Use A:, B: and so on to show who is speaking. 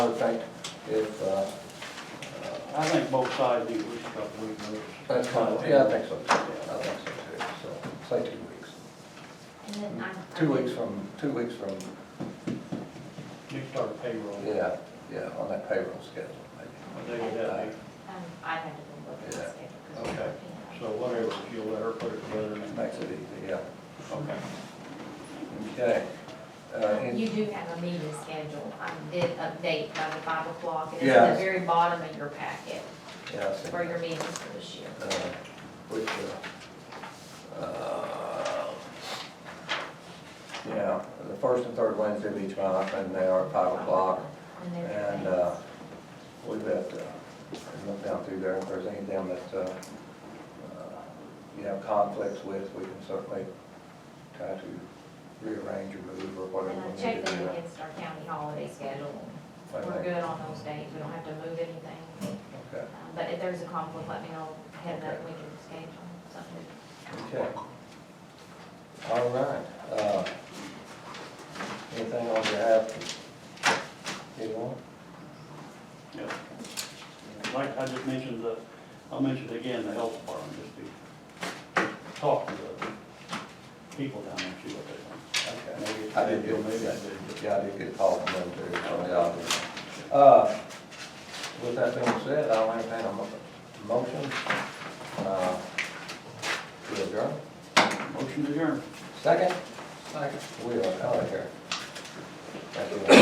A: In fact, if, uh,
B: I think both sides need at least a couple weeks notice.
A: that's kind of, yeah, I think so, too. I think so too, so, say two weeks.
C: And then I.
A: Two weeks from, two weeks from,
B: You start payroll.
A: yeah, yeah, on that payroll schedule, maybe.
B: What day would that be?
C: Um, I had to go look at the
A: Yeah.
C: schedule.
B: Okay. So whatever, if you'll let her put it together and.
A: Makes it easy, yeah.
B: Okay.
A: Okay. Uh, any-
C: You do have a meeting schedule. I did update by the five o'clock. It's at
A: Yes.
C: the very bottom of your packet
A: Yeah, I see.
C: for your meetings for this year.
A: Uh, Which, uh, uh, yeah, the first and third Wednesday of each month, and they are at five o'clock.
C: And there-
A: And uh, we've got, uh, look down through there, if there's any down that, uh, uh, you have conflicts with, we can certainly try to rearrange or move or whatever
C: And I
A: we need
C: checked
A: to
C: in
A: do.
C: against our county holiday schedule.
A: I
C: We're
A: think-
C: good on those days. We don't have to move anything.
A: Okay,
C: Uh, But if there's a conflict, let me know ahead of
A: Okay.
C: we can schedule something.
A: okay. All right. uh, Anything on behalf? Anyone?
B: Yeah. Like I just mentioned, the, I'll mention it again, the health department, just to talk to the people down there, and see what they
A: Okay.
B: think. Maybe-
A: I did get,
B: Maybe I Oh,
A: yeah, I did get a call from them too, from the office. Uh, With that being said, I'll entertain a mo- motion uh, to adjourn.
B: did. Motion to adjourn.
A: Second? Second. We are out of here. Thank you.